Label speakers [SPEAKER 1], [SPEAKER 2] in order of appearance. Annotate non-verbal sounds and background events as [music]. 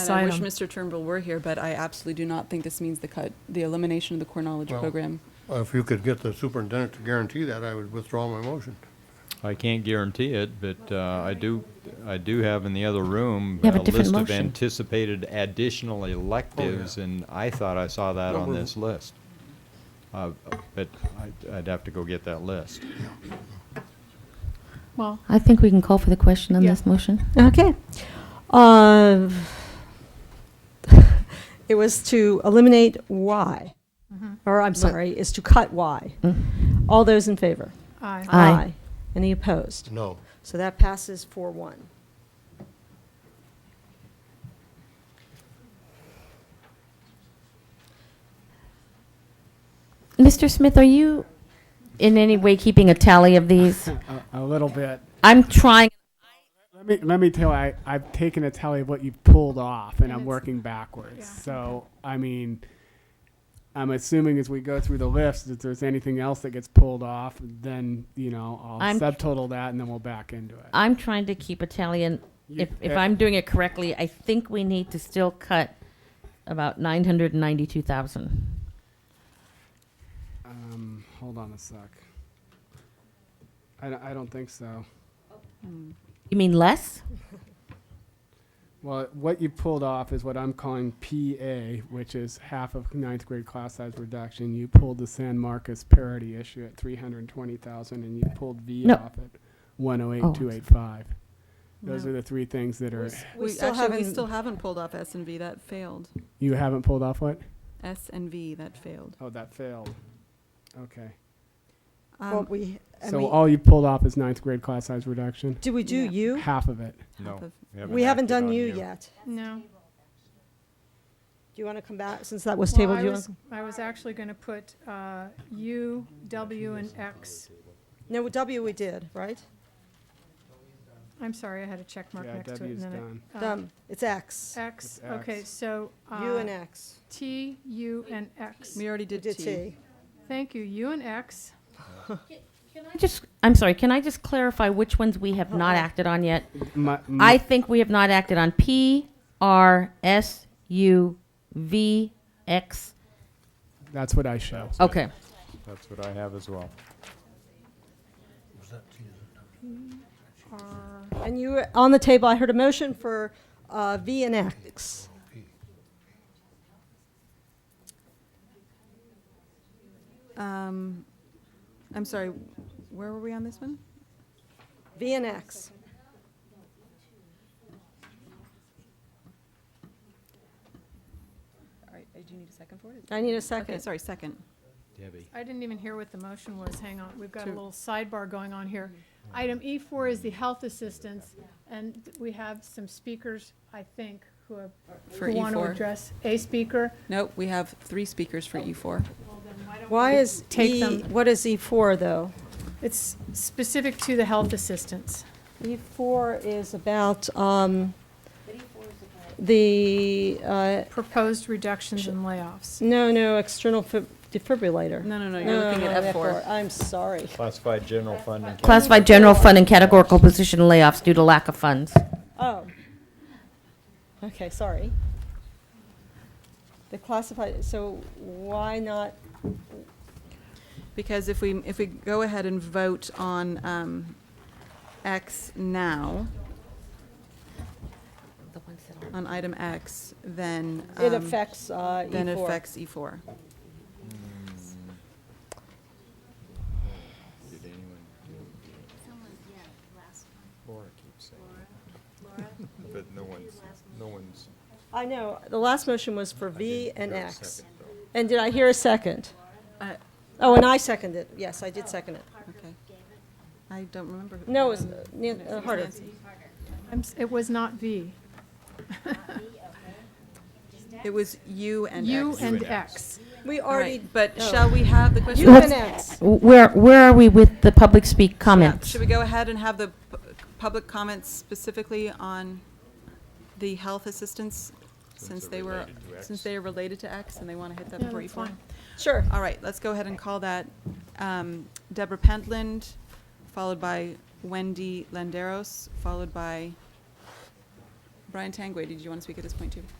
[SPEAKER 1] And I
[SPEAKER 2] sign
[SPEAKER 1] wish
[SPEAKER 2] 'em.
[SPEAKER 1] Mr. Turnbull were here, but I absolutely do not think this means the cut, the elimination of the core knowledge
[SPEAKER 3] Well-
[SPEAKER 1] program.
[SPEAKER 3] Uh, If you could get the superintendent to guarantee that, I would withdraw my motion.
[SPEAKER 4] I can't guarantee it, but uh, I do, I do have in the other room
[SPEAKER 5] You have a
[SPEAKER 4] uh,
[SPEAKER 5] different
[SPEAKER 4] list of
[SPEAKER 5] motion.
[SPEAKER 4] anticipated additional electives, and I thought I saw that
[SPEAKER 3] Oh, No,
[SPEAKER 4] on
[SPEAKER 3] we're-
[SPEAKER 4] this list. Uh, But I'd- I'd have to go get that list.
[SPEAKER 2] Well,
[SPEAKER 5] I think we can call for the question on
[SPEAKER 2] Yeah.
[SPEAKER 5] this [laughs] motion.
[SPEAKER 6] Okay. Uh, [laughs] It was to eliminate Y,
[SPEAKER 2] Mm-hmm.
[SPEAKER 6] or I'm sorry, is to cut Y. All those in favor?
[SPEAKER 2] aye.
[SPEAKER 6] Uh,
[SPEAKER 5] Aye.
[SPEAKER 6] Any opposed?
[SPEAKER 3] No.
[SPEAKER 6] So that passes 4-1.
[SPEAKER 5] Mr. Smith, are you in any way keeping a tally of these?
[SPEAKER 7] A, a little bit.
[SPEAKER 5] I'm trying,
[SPEAKER 7] Let me let me tell you, I, I've taken a tally of what you've pulled off, and,
[SPEAKER 2] And
[SPEAKER 7] I'm
[SPEAKER 2] it's-
[SPEAKER 7] working backwards.
[SPEAKER 2] yeah,
[SPEAKER 7] So I mean, I'm assuming as we go through the list, if there's anything else that gets pulled off, then you know I'll
[SPEAKER 5] I'm-
[SPEAKER 7] subtotal that, and then we'll back into it.
[SPEAKER 5] I'm trying to keep a tally, and
[SPEAKER 7] You-
[SPEAKER 5] if, if
[SPEAKER 7] eh,
[SPEAKER 5] I'm doing it correctly, I think we need to still cut about 992,000.
[SPEAKER 7] um, hold on a sec. I, don't- I don't think so.
[SPEAKER 5] You mean less?
[SPEAKER 7] Well, what you pulled off is what I'm calling PA, which is half of ninth grade class size reduction. You pulled the San Marcos parity issue at 320,000, and you pulled V
[SPEAKER 5] No.
[SPEAKER 7] off at
[SPEAKER 5] Oh, I'm
[SPEAKER 7] 108,285. Those
[SPEAKER 1] No.
[SPEAKER 7] are the three things that are,
[SPEAKER 1] We,
[SPEAKER 6] still
[SPEAKER 1] actually, we
[SPEAKER 6] haven't-
[SPEAKER 1] still haven't pulled off S and V, that failed.
[SPEAKER 7] you haven't pulled off what?
[SPEAKER 1] S and V, that failed.
[SPEAKER 7] Oh, that failed. Okay.
[SPEAKER 6] Well,
[SPEAKER 1] Um,
[SPEAKER 6] we, I
[SPEAKER 7] So
[SPEAKER 6] mean,
[SPEAKER 7] all you pulled off is ninth grade class size reduction,
[SPEAKER 6] do we do
[SPEAKER 1] Yeah.
[SPEAKER 6] U?
[SPEAKER 7] half of it.
[SPEAKER 1] half
[SPEAKER 4] No.
[SPEAKER 1] of-
[SPEAKER 6] We haven't
[SPEAKER 4] acted
[SPEAKER 6] done
[SPEAKER 4] on
[SPEAKER 6] U
[SPEAKER 4] you.
[SPEAKER 6] yet.
[SPEAKER 2] No.
[SPEAKER 6] Do you want to come back, since that was
[SPEAKER 2] Well,
[SPEAKER 6] tabled?
[SPEAKER 2] I
[SPEAKER 6] do you
[SPEAKER 2] was- I
[SPEAKER 6] wanna-
[SPEAKER 2] was actually going to put uh, U, W, and X.
[SPEAKER 6] No, W we did, right?
[SPEAKER 2] I'm sorry, I had a check mark
[SPEAKER 7] Yeah,
[SPEAKER 2] next to it.
[SPEAKER 7] W's
[SPEAKER 2] and then I-
[SPEAKER 7] done.
[SPEAKER 2] uh,
[SPEAKER 6] Done. It's X.
[SPEAKER 2] X,
[SPEAKER 7] It's
[SPEAKER 2] okay,
[SPEAKER 7] X.
[SPEAKER 2] so.
[SPEAKER 6] U
[SPEAKER 2] uh,
[SPEAKER 6] and X.
[SPEAKER 2] T, U, and X.
[SPEAKER 1] We already
[SPEAKER 6] We
[SPEAKER 1] did
[SPEAKER 6] did
[SPEAKER 1] T.
[SPEAKER 6] T.
[SPEAKER 2] Thank you, U and X.
[SPEAKER 5] I just, I'm sorry, can I just clarify which ones we have not
[SPEAKER 6] Okay.
[SPEAKER 5] acted on yet?
[SPEAKER 2] [laughs]
[SPEAKER 7] My- my-
[SPEAKER 5] I think we have not acted on P, R, S, U, V, X.
[SPEAKER 7] That's what I show.
[SPEAKER 5] Okay.
[SPEAKER 4] That's what I have as well.
[SPEAKER 2] R-
[SPEAKER 6] And you, were on the table, I heard a motion for uh, V and X.
[SPEAKER 1] Um, I'm sorry, where were we on this one?
[SPEAKER 6] V and X.
[SPEAKER 1] All right, do you need a second for it?
[SPEAKER 6] I need a
[SPEAKER 1] Okay,
[SPEAKER 6] second.
[SPEAKER 1] sorry, second.
[SPEAKER 2] I didn't even hear what the motion was. Hang on, we've got a
[SPEAKER 1] To-
[SPEAKER 2] little sidebar going on here. Item E4 is the health assistance, and we have some speakers, I think, who have,
[SPEAKER 1] For
[SPEAKER 6] E
[SPEAKER 2] who want to
[SPEAKER 1] E4.
[SPEAKER 2] address a speaker.
[SPEAKER 1] No, we have three speakers for E E4.
[SPEAKER 6] Why is
[SPEAKER 2] Take
[SPEAKER 6] E,
[SPEAKER 2] them.
[SPEAKER 6] what is E4, though?
[SPEAKER 2] It's specific to the health assistance.
[SPEAKER 6] E4 E is about um, the, uh,
[SPEAKER 2] Proposed reductions and layoffs.
[SPEAKER 6] no, no, external fib- defibrillator.
[SPEAKER 1] No, no, no, you're looking
[SPEAKER 6] No,
[SPEAKER 1] at
[SPEAKER 6] no,
[SPEAKER 1] F4.
[SPEAKER 6] I'm sorry.
[SPEAKER 4] Classified general fund and
[SPEAKER 5] Classified general fund and categorical position layoffs due to lack of funds.
[SPEAKER 6] Oh. Okay, sorry. The classified, so why not,
[SPEAKER 1] Because if we, if we go ahead and vote on um, X now, on item X, then.
[SPEAKER 6] it
[SPEAKER 1] um,
[SPEAKER 6] affects uh, E4.
[SPEAKER 1] Then it affects E E4.
[SPEAKER 4] Did anyone do Laura keeps saying. [laughs] But no one's, no one's.
[SPEAKER 6] I know, the last motion was for V and X. And did I hear a second?
[SPEAKER 1] Uh,
[SPEAKER 6] Oh, and I seconded, yes, I did second it.
[SPEAKER 1] Okay. I don't remember. who- um,
[SPEAKER 6] No, it was uh, Nan- uh, Harder.
[SPEAKER 2] I'm s- It was not V.
[SPEAKER 1] It was U and X.
[SPEAKER 2] U and
[SPEAKER 4] and
[SPEAKER 2] X.
[SPEAKER 4] X.
[SPEAKER 6] We
[SPEAKER 1] All
[SPEAKER 6] already.
[SPEAKER 1] right, but
[SPEAKER 6] oh.
[SPEAKER 1] shall we have the question?
[SPEAKER 6] U and X.
[SPEAKER 5] Where, where are we with the public speak comments?
[SPEAKER 1] Should we go ahead and have the pu- public comments specifically on the health assistance? Since they were, since they are related to X and they want to hit that
[SPEAKER 2] Yeah,
[SPEAKER 1] before
[SPEAKER 2] that's
[SPEAKER 1] E4?
[SPEAKER 2] fine.
[SPEAKER 6] Sure.
[SPEAKER 1] All right, let's go ahead and call that um, Deborah Pentland, followed by Wendy Landeros, followed by Brian Tangway, did you want to speak at this point too?